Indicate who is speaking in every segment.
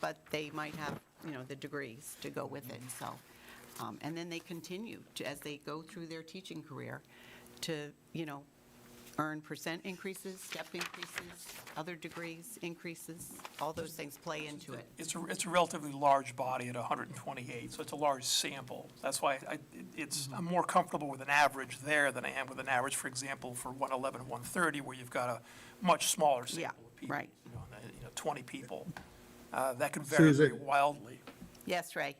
Speaker 1: but they might have, you know, the degrees to go with it, so. um, And then they continue, to- as they go through their teaching career, to, you know, earn percent increases, step increases, other degrees increases, all those things play into it.
Speaker 2: It's a, it's a relatively large body at 128, so it's a large sample. That's why I, it's, I'm more comfortable with an average there than I am with an average, for example, for 111 and 130, where you've got a much smaller
Speaker 1: Yeah,
Speaker 2: sample of people.
Speaker 1: right.
Speaker 2: you know, and, uh, You know, 20 people. Uh, That can vary very
Speaker 3: Susan.
Speaker 2: wildly.
Speaker 1: Yes, Ray?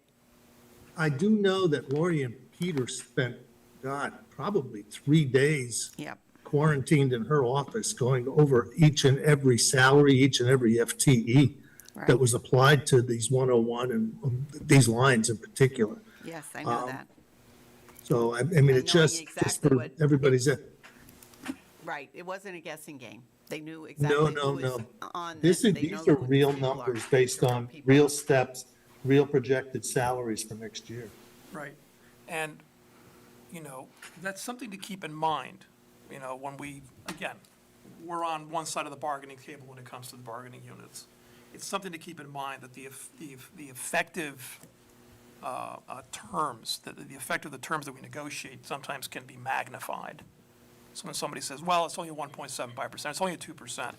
Speaker 3: I do know that Lori and Peter spent, God, probably three days
Speaker 1: Yep.
Speaker 3: quarantined in her office, going over each and every salary, each and every FTE that
Speaker 1: Right.
Speaker 3: was applied to these 101 and um, these lines in particular.
Speaker 1: Yes, I know
Speaker 3: Um,
Speaker 1: that.
Speaker 3: So, I, I mean,
Speaker 1: knowing
Speaker 3: it just, just
Speaker 1: exactly
Speaker 3: for
Speaker 1: what-
Speaker 3: everybody's, uh,
Speaker 1: Right, it wasn't a guessing game. They knew exactly
Speaker 3: no,
Speaker 1: who
Speaker 3: no,
Speaker 1: was
Speaker 3: no.
Speaker 1: on this.
Speaker 3: This is,
Speaker 1: They know
Speaker 3: these
Speaker 1: who
Speaker 3: are
Speaker 1: these
Speaker 3: real
Speaker 1: people are.
Speaker 3: numbers based
Speaker 1: These are
Speaker 3: on
Speaker 1: people.
Speaker 3: real steps, real projected salaries for next year.
Speaker 2: Right. And, you know, that's something to keep in mind, you know, when we, again, we're on one side of the bargaining table when it comes to the bargaining units. It's something to keep in mind that the, eff- the, eff- the effective uh, uh, terms, that the effect of the terms that we negotiate sometimes can be magnified. So when somebody says, well, it's only 1.75%, it's only a 2%,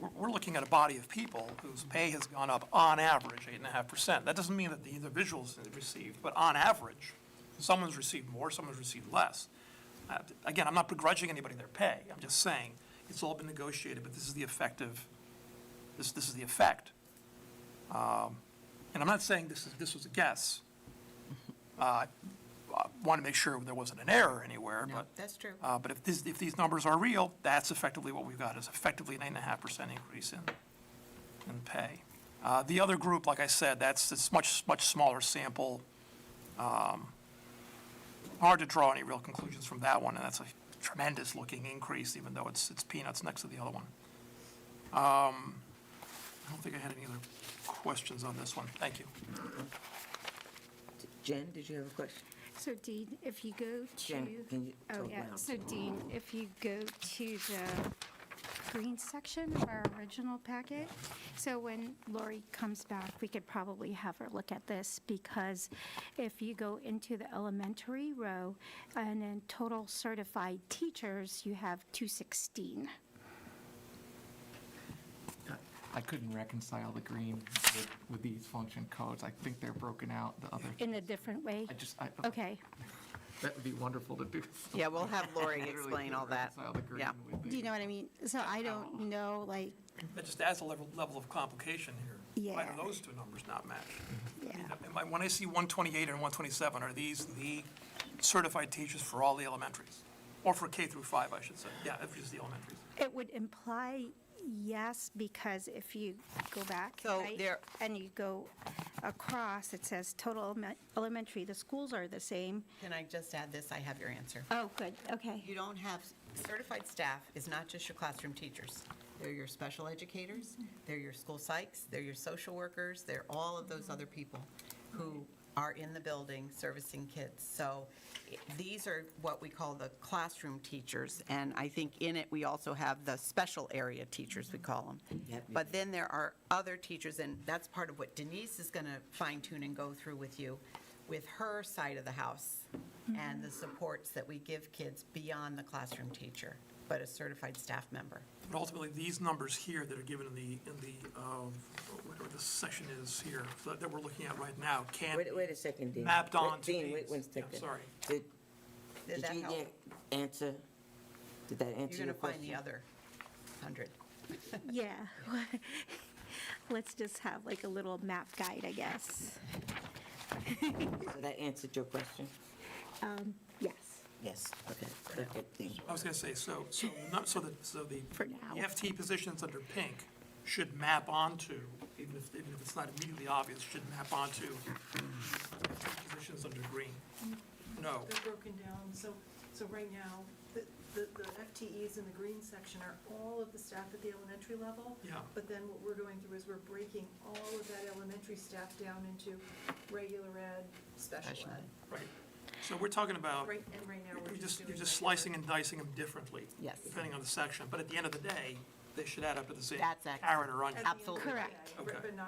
Speaker 2: we're, we're looking at a body of people whose pay has gone up on average eight and a half percent. That doesn't mean that the individuals have received, but on average, someone's received more, someone's received less. Uh, Again, I'm not begrudging anybody their pay, I'm just saying, it's all been negotiated, but this is the effective, this, this is the effect. Um, And I'm not saying this is, this was a guess. Uh, I want to make sure there wasn't an error anywhere,
Speaker 1: No,
Speaker 2: but.
Speaker 1: That's true.
Speaker 2: Uh, But if this, if these numbers are real, that's effectively what we've got, is effectively an eight and a half percent increase in, in pay. Uh, The other group, like I said, that's, it's much, much smaller sample. Um, Hard to draw any real conclusions from that one, and that's a tremendous looking increase, even though it's, it's peanuts next to the other one. Um, I don't think I had any other questions on this one. Thank you.
Speaker 4: Jen, did you have a question?
Speaker 5: So Dean, if you go to,
Speaker 4: Jen, can you
Speaker 5: oh
Speaker 4: talk
Speaker 5: yeah,
Speaker 4: loud?
Speaker 5: so Dean, if you go to the green section of our original packet, so when Lori comes back, we could probably have her look at this, because if you go into the elementary row, and in total certified teachers, you have 216.
Speaker 6: I couldn't reconcile the green with, with these function codes. I think they're broken out the other.
Speaker 5: In a different way?
Speaker 6: I just, I,
Speaker 5: Okay,
Speaker 6: that would be wonderful to do.
Speaker 1: Yeah, we'll have Lori
Speaker 6: Literally
Speaker 1: explain
Speaker 6: couldn't
Speaker 1: all that.
Speaker 6: reconcile the green
Speaker 1: Yeah.
Speaker 6: with the-
Speaker 7: Do you know what I mean? So I
Speaker 4: Oh.
Speaker 7: don't know, like,
Speaker 2: That just adds a level, level of complication here. Why do
Speaker 7: Yeah.
Speaker 2: those two numbers not match?
Speaker 7: yeah.
Speaker 2: Am I- When I see 128 and 127, are these the certified teachers for all the elementaries? Or for K through 5, I should say, yeah, if it's the elementaries.
Speaker 5: it would imply yes, because if you go back,
Speaker 1: So
Speaker 5: right,
Speaker 1: there-
Speaker 5: And you go across, it says total eleme- elementary, the schools are the same.
Speaker 1: Can I just add this? I have your answer.
Speaker 5: Oh, good, okay.
Speaker 1: You don't have, certified staff is not just your classroom teachers. They're your special educators, they're your school psychs, they're your social workers, they're all of those other people who are in the building servicing kids. So i- these are what we call the classroom teachers, and I think in it, we also have the special area teachers, we call them.
Speaker 4: Yep.
Speaker 1: But then there are other teachers, and that's part of what Denise is going to fine tune and go through with you, with her side of the house
Speaker 4: Mm-hmm.
Speaker 1: and the supports that we give kids beyond the classroom teacher, but a certified staff member.
Speaker 2: But ultimately, these numbers here that are given in the, in the, um, whatever this session is here, that that we're looking at right now, can
Speaker 4: Wait,
Speaker 2: be
Speaker 4: wait a second, Dean.
Speaker 2: mapped
Speaker 4: Wait,
Speaker 2: on to these.
Speaker 4: Dean, wait one
Speaker 2: Yeah,
Speaker 4: second.
Speaker 2: Sorry.
Speaker 4: Did,
Speaker 1: Did
Speaker 4: did
Speaker 1: that
Speaker 4: you
Speaker 1: help?
Speaker 4: get answer, did that answer
Speaker 1: You're
Speaker 4: your
Speaker 1: going to
Speaker 4: question?
Speaker 1: find the other 100.
Speaker 5: Yeah. Let's just have like a little map guide, I guess.
Speaker 4: So that answered your question?
Speaker 5: Yes.
Speaker 4: Yes, okay, okay, Dean.
Speaker 2: I was going to say, so, so, not- so the, so the.
Speaker 5: For now.
Speaker 2: The FT positions under pink should map onto, even if, even if it's not immediately obvious, should map onto positions under green. No.
Speaker 8: They're broken down, so, so right now, the, the the FTEs in the green section are all of the staff at the elementary level.
Speaker 2: Yeah.
Speaker 8: But then what we're going through is we're breaking all of that elementary staff down into regular ed, special
Speaker 1: Special ed.
Speaker 8: ed.
Speaker 2: Right. So we're talking about,
Speaker 8: Right, and right now, we're
Speaker 2: you're
Speaker 8: just
Speaker 2: just,
Speaker 8: doing.
Speaker 2: you're just
Speaker 8: regular-
Speaker 2: slicing and dicing them differently.
Speaker 1: Yes.
Speaker 2: Depending on the section, but at the end of the day, they should add up to the same
Speaker 1: That's excellent.
Speaker 2: carrot or onion.
Speaker 8: At the end of the
Speaker 1: Absolutely.
Speaker 8: day,
Speaker 5: Correct.
Speaker 8: But
Speaker 2: Okay.
Speaker 8: not